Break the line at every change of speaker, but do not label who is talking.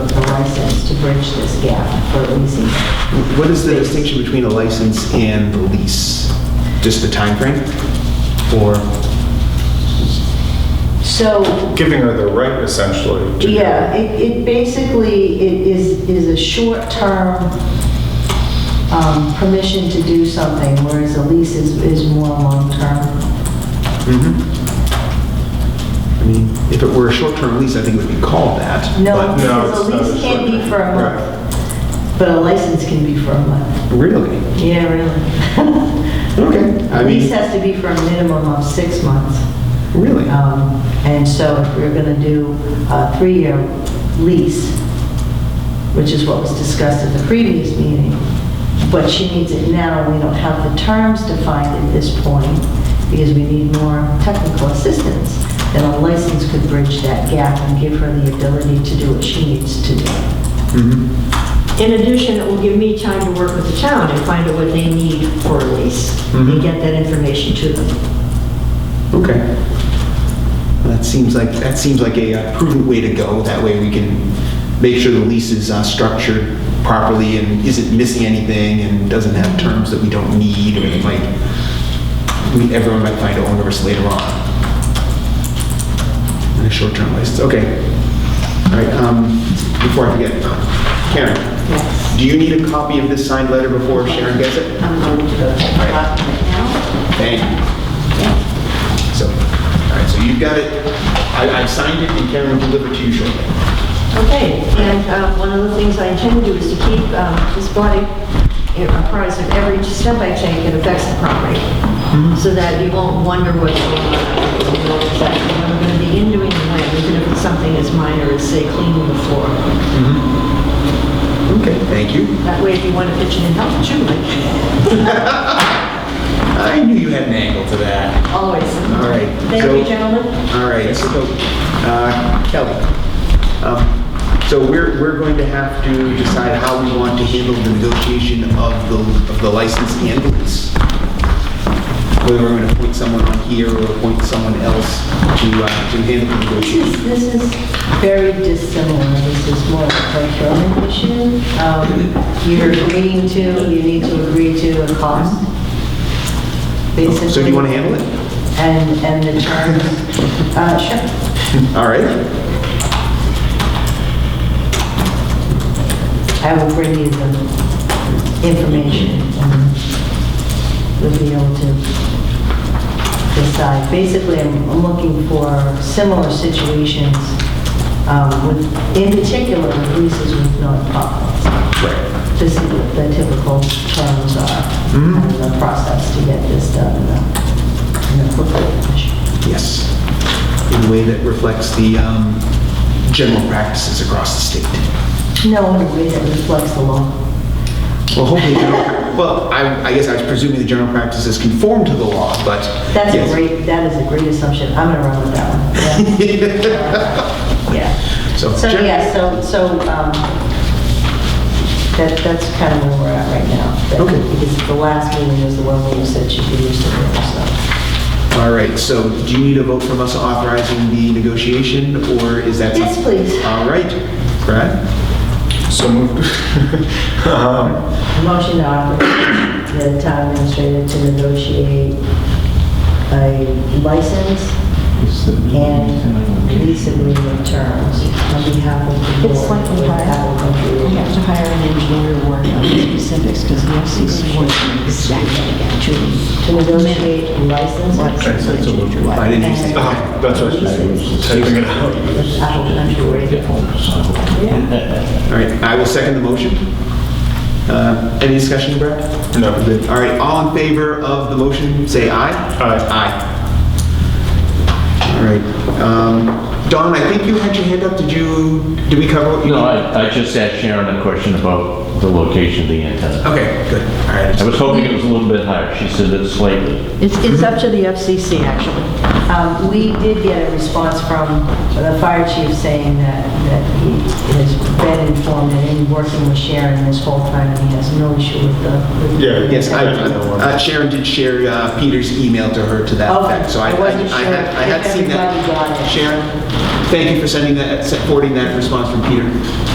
our sense to bridge this gap for leasing.
What is the distinction between a license and the lease? Just the time frame, Or,
So,
Giving her the right essentially. to-
yeah, it, it basically, it is, is a short-term um, permission to do something, whereas a lease is, is more long-term.
I mean, if it were a short-term lease, I think it would be called that.
No,
but-
No,
because a
it's not a
lease can be for
short-term,
a month, but a license can be for a month.
Really?
Yeah, really.
Okay. I
A lease
mean,
has to be for a minimum of six months.
really?
Um, And so if we're going to do a three-year lease, which is what was discussed at the previous meeting, but she needs it now, we don't have the terms defined at this point, because we need more technical assistance, then a license could bridge that gap and give her the ability to do what she needs to do.
Mm-hmm.
In addition, it will give me time to work with the town and find out what they need for a lease and get that information to them.
Okay. That seems like, that seems like a uh, prudent way to go. That way we can make sure the lease is uh, structured properly and isn't missing anything and doesn't have terms that we don't need or that might, we- everyone might find onerous later on. And a short-term license, okay. All right, um, before I forget, Karen,
Yes.
do you need a copy of this signed letter before Sharon gets it?
I'm going to go to the document now.
Thank you. So, all right, so you've got it, I, I've signed it, and Karen will deliver it to you shortly.
Okay, and uh, one of the things I intend to do is to keep um, this body apprised of every step I take that affects the property,
Mm-hmm.
so that you won't wonder what's going on, you know exactly what I'm going to be in doing the land, even if it's something as minor as, say, cleaning the floor.
Okay, thank you.
That way, if you want to pitch in and help, you might
I knew you had an angle to that.
always.
All right.
Thank you,
so-
gentlemen.
All right, so, uh, Kelly, um, so we're, we're going to have to decide how we want to handle the negotiation of the, of the license and the lease. Whether we're going to appoint someone on here or appoint someone else to, uh, to handle the negotiation.
This is, this is very dissimilar, this is more of a procurement issue. Um, You're agreeing to, you need to agree to a cost, basically.
So do you wanna handle it?
And, and the terms, uh, sure.
All right?
I will bring you the information, and we'll be able to decide. Basically, I'm I'm looking for similar situations, um, with, in particular, with leases with nonprofits. Right. To see what the typical terms are, and the process to get this done in a- in a quick fashion.
Yes. In a way that reflects the um, general practices across the state.
No, in a way that reflects the law.
Well, hopefully, general- well, I I guess I was presuming the general practices conform to the law, but.
That's a
yes.
great, that is a great assumption, I'm gonna run with that one. Yeah. Yeah.
So-
So, yeah, so, so, um, that, that's kind of where we're at right now. That-
Okay.
Because the last meeting was the one where you said should be used to it, so.
All right, so do you need a vote from us authorizing the negotiation, or is that?
Yes,
something-
please.
All right, Brad?
So moved. Um,
Motion to authorize the town administrator to negotiate a license and lease agreement terms on behalf of the board.
It's slightly
with
higher.
Apple Computer.
We have to hire an engineer to work on the specifics because the FCC wants to know exactly
To negotiate a license.
what
I didn't hear you say-
ah, That's what I was typing it out.
with Apple Computer.
All right, I will second the motion. Uh, Any discussion, Brad?
No.
All right, all in favor of the motion, say aye.
Aye.
Aye. All right. um, Don, I think you had your hand up, did you, did we cover what you?
No,
needed?
I, I just asked Sharon a question about the location of the antenna.
Okay, good, all
I
right.
was hoping it was a little bit higher. She said it's slightly.
It's, it's up to the FCC, actually.
Um, We did get a response from the fire chief saying that, that he has been informed and in working with Sharon this whole time, and he has no issue with the. with the-
Yeah,
Yes, I-
Yeah.
uh, Sharon did share uh, Peter's email to her to that
Okay,
effect, so I
I
I-
wasn't
I had,
sure
I had
if
seen that.
everybody got it.
Sharon, thank you for sending that, forwarding that response from Peter.